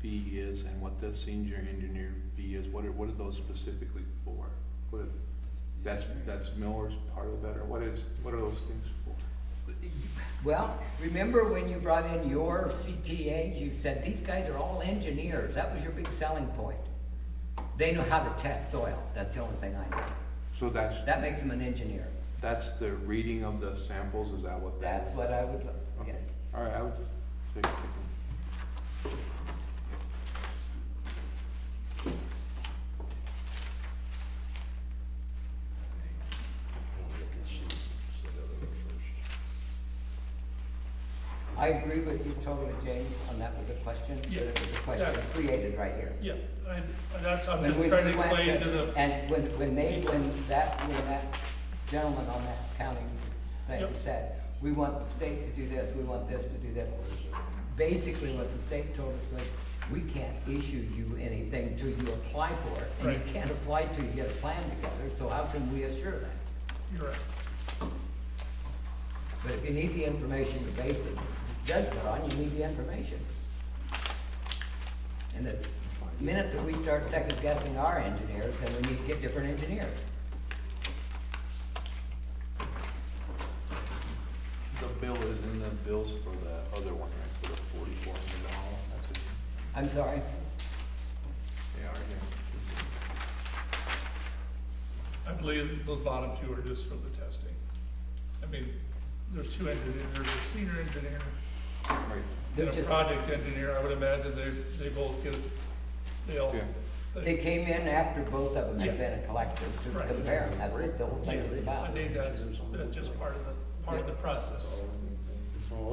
fee is and what the senior engineer fee is, what are, what are those specifically for? What, are- that's, that's Miller's part of that, or what is, what are those things for? Well, remember when you brought in your CTAs, you said, these guys are all engineers, that was your big selling point. They know how to test soil, that's the only thing I know. So that's, That makes them an engineer. that's the reading of the samples, is that what that is? That's what I would, Okay. yes. All right, I would just take, take them. I agree with you totally, James, and that was a question. Yeah, It was a question yeah. created right here. Yeah, I, that's, I'm When just we- trying to we went explain to the, And when, when they, when that, when that gentleman on that county thing Yep. said, we want the state to do this, we want this to do this. Basically, what the state told us was, we can't issue you anything till you apply for it. And Right. you can't apply till you get a plan together, so how can we assure that? you're right. But if you need the information to base the judgment on, you need the information. And the minute that we start second guessing our engineers, then we need to get different engineers. The bill is in the bills for the other one, right, for the forty-four hundred dollars, that's it, I'm sorry, they are here. I believe those bottom two are just for the testing. I mean, there's two engineers, there's a senior engineer Right, they're and a just, project engineer. I would imagine they, they both get, they all, Yeah. they they, came in after both of them had Yeah. been a collective to Right. compare, that's what the whole thing is I about. think that's, that's just part of the, part of the process.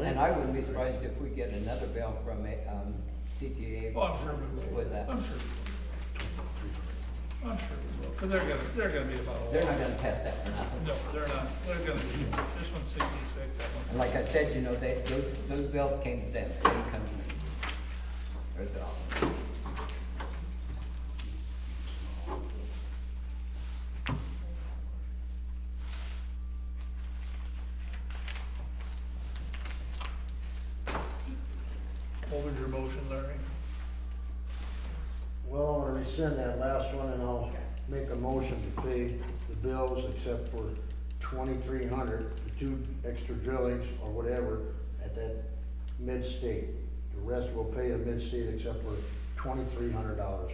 And I wouldn't be surprised if we get another bill from a, um, CTA Well, Oh, I'm sure we will. with that. I'm sure. we will. I'm sure we will, because they're gonna, they're gonna be about a They're not lot. gonna test that for nothing. No, they're not. They're gonna, this one's sixty-six, that one's And like I said, you know, they, those, those bills came to them, they didn't come to me. Or the office. What was your motion, Larry? Well, I'm gonna rescind that last one and I'll make a motion to pay the bills except for twenty-three hundred, the two extra drillings or whatever at that mid-state. The rest we will pay at mid-state except for twenty-three hundred dollars.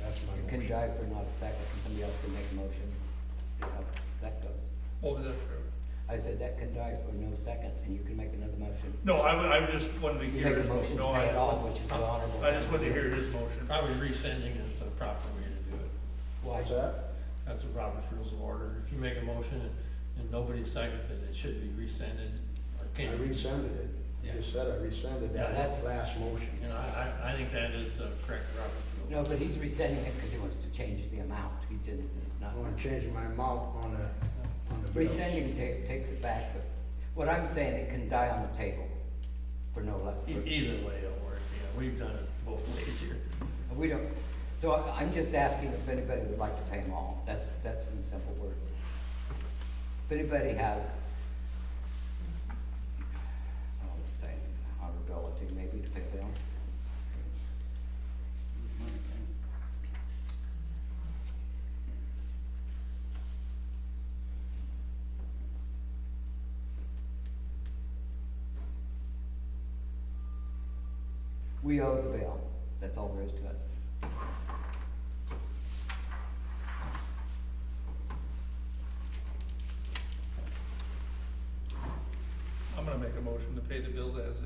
That's You my can motion. drive for not a second, and somebody else can make a motion, see how that goes. What was that for? I said that can drive for no second, and you can make another motion. No, I, wa- I just wanted You to hear. make a his motion no, to pay it I- all, which is the honorable. I just wanted to hear his motion. Probably rescinding is the proper way to do it. Why? What's that? That's the Robert's Rules of Order. If you make a motion and- and nobody seconds it, it should be rescinded I or can't. be rescinded it. You just said I rescinded that. Yeah, that's- last motion. And I, I, I think that is the correct Robert's Rule. No, but he's rescinding it because he wants to change the amount, he didn't, it's not. I wanna change my amount on the, on the bills. Rescinding ta- takes it back, but what I'm saying, it can die on the table for no less. E- Either way it'll work, yeah. We've done it both ways here. We don't, so I- I'm just asking if anybody would like to pay them all, that's, that's in simple words. If anybody has, I would oh, say, our ability maybe to pay them. We owe the bill, that's all there is to it. I'm gonna make a motion to pay the bill as is.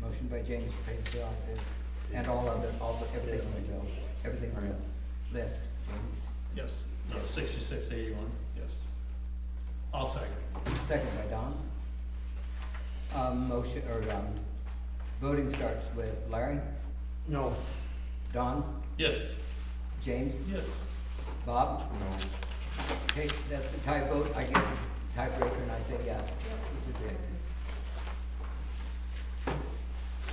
Motion by James to pay the bill, I said, and all of it, all, the- everything on the bill, everything on the list. Yes, No, sixty-six eighty-one. yes. I'll second. Second by Don. Um, motion, or, um, voting starts with Larry, No, Don, Yes, James, Yes, Bob. no. Okay, that's the tie vote, I get the tiebreaker and I say yes. This is it.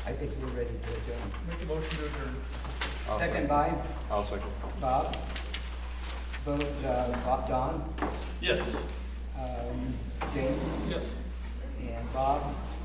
I think we're ready to adjourn. make a motion to adjourn. I'll Second by I'll second. Bob. Vote, uh, Bob, Don, yes, um, James, Yes, and Bob,